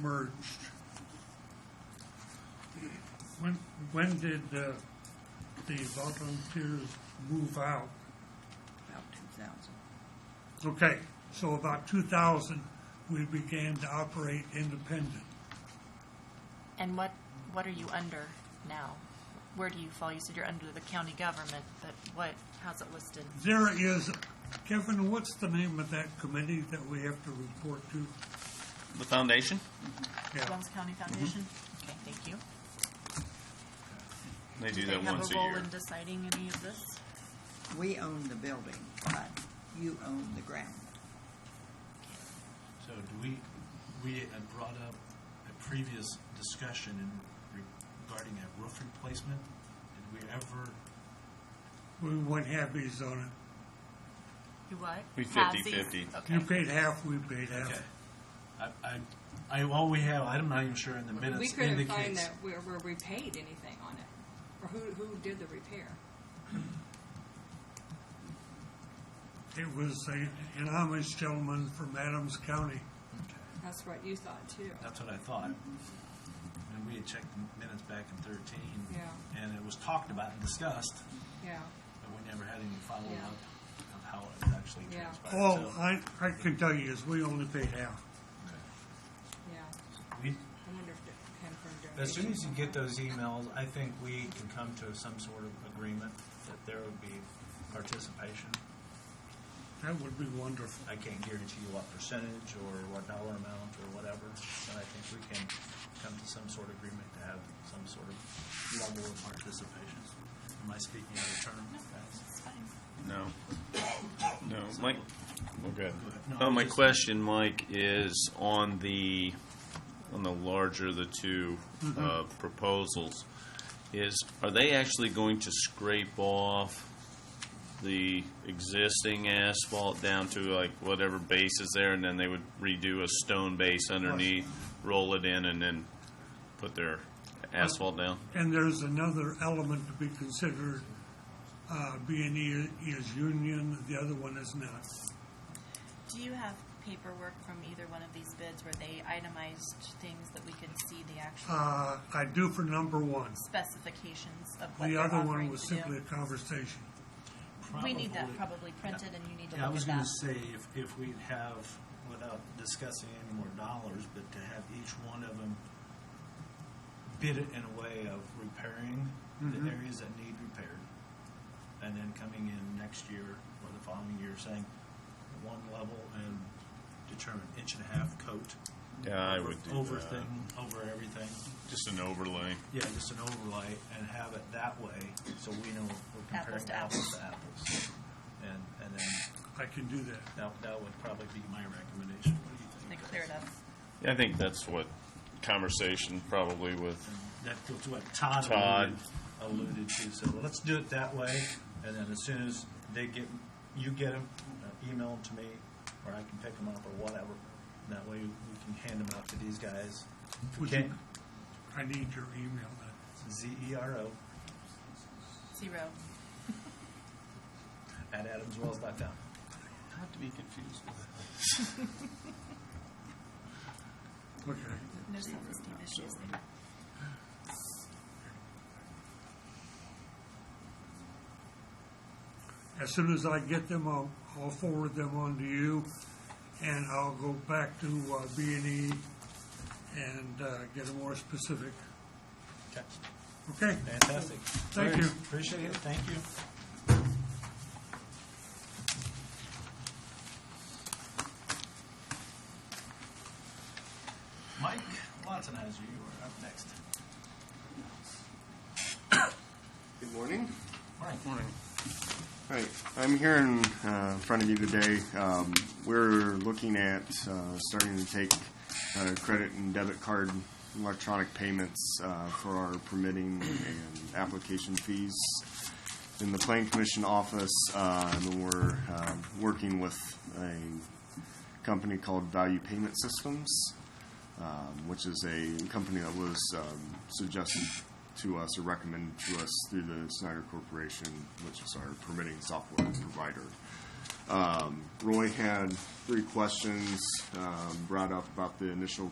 merged. When, when did uh, the volunteers move out? about two thousand. Okay, so about 2000, we began to operate independent. And what, what are you under now? Where do you fall? You said you're under the county government, but what, how's it listed? There is, Kevin, what's the name of that committee that we have to report to? The foundation? Yeah, Jones County Mm-hmm. Foundation? Okay, thank you. They do They that once Have a a role year. in deciding any of this? We own the building, but you own the ground. So do we, we had brought up a previous discussion in regarding a roof replacement. Did we ever, we went halfies on it. You what? We Have 50-50. these? You Okay. paid half, we paid half. okay. I, I, I, all we have, I'm not even sure in the We minutes couldn't find indicates. that where, where we paid anything on it, or who, who did the repair. It was a- an Amish gentleman from Adams County. Okay. That's what you thought too. That's what I thought. And we had checked the minutes back in thirteen. Yeah. And it was talked about and discussed, Yeah, but we never had any Yeah. follow-up of how it actually Yeah. transpired. All So, I, I can tell you is we only paid half. okay. yeah. We, I wonder if it came from donation. As soon as you get those emails, I think we can come to some sort of agreement that there would be participation. That would be wonderful. I can't guarantee you what percentage or what dollar amount or whatever, but I think we can come to some sort of agreement to have some sort of level of participation. am I speaking out of turn? guys? It's fine. No. No, Mike, oh, go ahead. No, Uh, my just- question, Mike, is on the, on the larger of the two uh, proposals, is, are they actually going to scrape off the existing asphalt down to like whatever base is there, and then they would redo a stone base underneath, roll it in, and then put their asphalt down? And there's another element to be considered. Uh, B and E is union, the other one is not. Do you have paperwork from either one of these bids where they itemized things that we could see the actual Uh, I do for number one. specifications of what The they're other offering one was to simply a do? conversation. We need that probably Probably. printed and you need to Yeah, I look was at gonna that. say, if, if we'd have, without discussing any more dollars, but to have each one of them bid it in a way of repairing Mm-hmm. the areas that need repaired, and then coming in next year or the following year saying, one level and determine inch and a half coat. Yeah, I over- would do Over that. thing, over everything. Just an overlay. Yeah, just an overlay and have it that way, so we know we're Apples comparing to apples to apples. And, and then I can do that. that, that would probably be my recommendation. What do you They think? cleared up. Yeah, I think that's what conversation probably with That was what Todd Todd. alluded- alluded to, so let's do it that way, and then as soon as they get, you get them, email them to me, or I can pick them up or whatever. And That way we can hand them out to these guys. If we Would you- can't, I need your email then. Z E R O Zero. at adamswells.com. Not to be confused with Okay. There's sensitive issues. As soon as I get them, I'll, I'll forward them on to you, and I'll go back to B and E and uh, get a more specific. Okay, Okay, fantastic. Thank you. Appreciate it, thank you. Mike Wattenhauser, you are up next. Good morning. Mike. All right, I'm here in uh, front of you today. Um, We're looking at uh, starting to take uh, credit and debit card electronic payments uh, for our permitting and application fees in the Plan Commission office. uh, And we're uh, working with a company called Value Payment Systems um, which is a company that was um, suggested to us or recommended to us through the Snyder Corporation, which is our permitting software provider. Um, Roy had three questions um, brought up about the initial